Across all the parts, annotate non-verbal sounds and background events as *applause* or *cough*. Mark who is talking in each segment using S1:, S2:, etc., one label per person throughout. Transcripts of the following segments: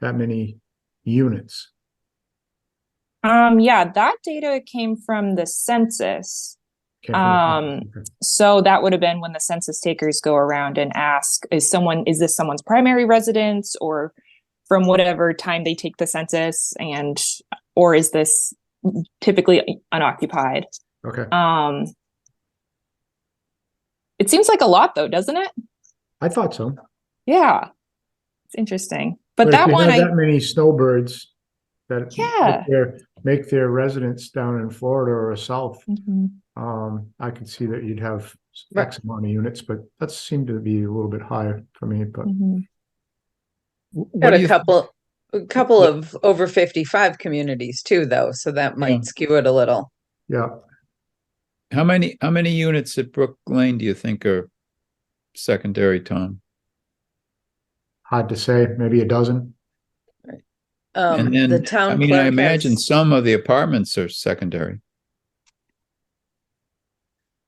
S1: that many units.
S2: Um, yeah, that data came from the census.
S1: Came from the-
S2: Um, So that would have been when the census takers go around and ask, is someone, is this someone's primary residence or from whatever time they take the census and, or is this typically unoccupied?
S1: Okay,
S2: Um, it seems like a lot though, doesn't it?
S1: I thought so.
S2: Yeah. It's interesting. But
S1: if
S2: that
S1: you
S2: one,
S1: have
S2: I,
S1: That many snowbirds that.
S2: Yeah.
S1: make their- Make their residence down in Florida or south,
S2: Mhm.
S1: um, I could see that you'd have
S2: Right.
S1: X amount of units, but that seemed to be a little bit higher for me, but.
S2: Mhm.
S3: Got a couple, a couple of over fifty-five communities too, though, so that
S4: Yeah.
S3: might skew it a little.
S2: Mm-hmm.
S1: Yeah,
S4: How many, how many units at Brook Lane do you think are secondary, Tom?
S1: hard to say, maybe a dozen.
S3: Um,
S4: And then,
S3: the
S4: I
S3: town
S4: mean, I
S3: clerk
S4: imagine
S3: has,
S4: some of the apartments are secondary.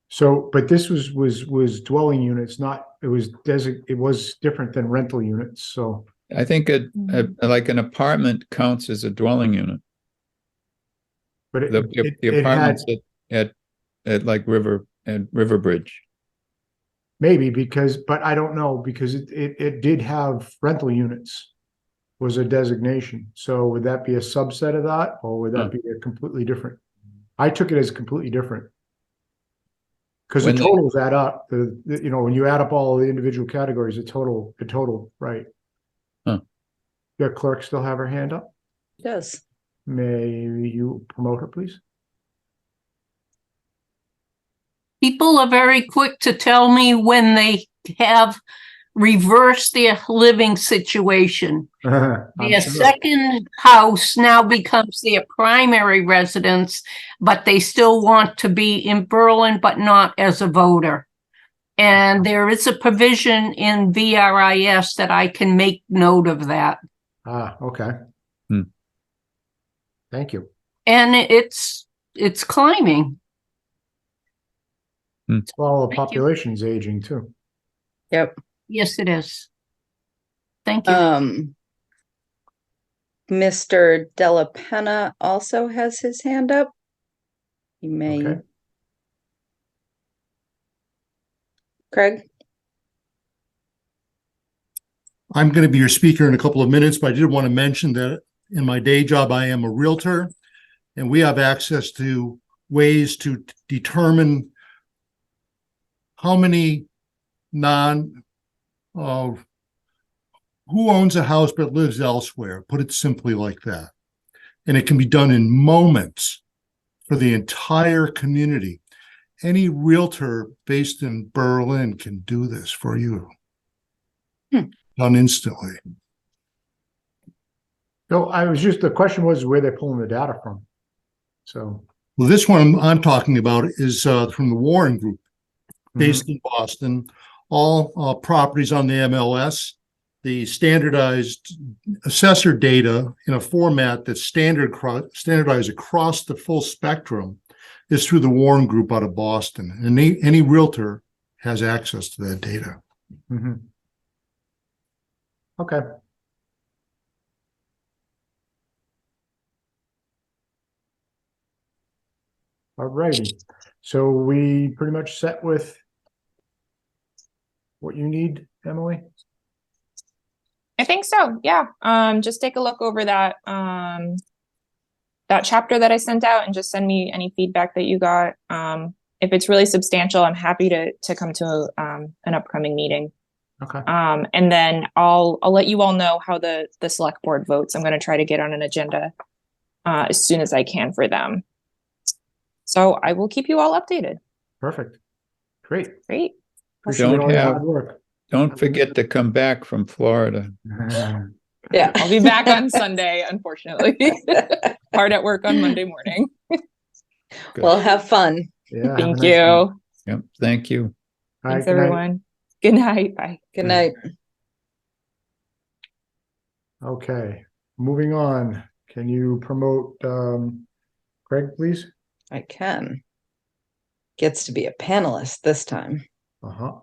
S1: So, but this was, was, was dwelling units, not, it was desig, it was different than rental units, so.
S4: I think a, a,
S3: Mm-hmm.
S4: like an apartment counts as a dwelling unit.
S1: But it,
S4: The,
S1: it,
S4: the
S1: it had,
S4: apartments at, at, at like River, at River Bridge.
S1: maybe because, but I don't know, because it, it, it did have rental units. Was a designation, so would that be a subset of that, or would
S4: Hmm.
S1: that be a completely different? I took it as completely different. Cause the
S4: When they-
S1: totals add up, the, the- you know, when you add up all the individual categories, the total, the total, right?
S4: Huh.
S1: Your clerk still have her hand up?
S3: does.
S1: May you promote her,
S4: *laughs*
S1: please?
S5: People are very quick to tell me when they have reversed their living situation.
S1: I'm
S5: Their
S1: sure.
S5: second house now becomes their primary residence, but they still want to be in Berlin, but not as a voter. And there is a provision in VRIS that I can make note of that.
S1: Ah, okay.
S4: Hmm.
S1: Thank you.
S5: And it's, it's climbing.
S1: Well, the
S5: Thank you.
S1: population's aging too.
S5: Yes, it is. Thank you.
S3: Um, Mr. Della Penna also has his hand up. You may.
S1: Okay.
S3: Craig,
S6: I'm going to be your speaker in a couple of minutes, but I did want to mention that in my day job, I am a Realtor. And we have access to ways to determine how many non, uh, who owns a house but lives elsewhere, put it simply like that. And it can be done in moments for the entire community. Any Realtor based in Berlin can do this for you.
S3: Hmm.
S6: Done instantly.
S1: No, I was just, the question was where they're pulling the data from. So.
S6: Well, this one I'm talking about is uh, from the Warren Group
S1: mm-hmm,
S6: based in Boston. All uh, properties on the MLS, the standardized assessor data in a format that's standard cro- standardized across the full spectrum is through the Warren Group out of Boston, and any, any realtor has access to that data.
S1: Mhm, mhm. Okay, all righty. So we pretty much set with what you need, Emily?
S2: I think so. Yeah. Um, just take a look over that, um, that chapter that I sent out and just send me any feedback that you got. Um, if it's really substantial, I'm happy to, to come to, um, an upcoming meeting.
S1: Okay,
S2: Um, and then I'll, I'll let you all know how the, the select board votes. I'm gonna try to get on an agenda uh, as soon as I can for them. So I will keep you all updated.
S1: perfect. Great.
S2: Great.
S1: Appreciate
S4: Don't
S1: all your
S4: have-
S1: hard work. *laughs*
S3: Um,
S4: Don't forget to come back from Florida.
S3: yeah.
S2: I'll be back
S1: *laughs*
S2: on Sunday, unfortunately. *laughs* Hard at work on Monday morning.
S3: Well, have fun.
S1: Yeah, have a
S2: Thank
S1: nice one. All
S2: you.
S4: Yep, thank you.
S1: right,
S2: Thanks,
S1: good night.
S2: everyone. Good night. Bye.
S3: Good
S1: Yeah.
S3: night.
S1: Okay, moving on. Can you promote um Craig, please?
S3: I can. Gets to be a panelist this time.
S1: Uh-huh.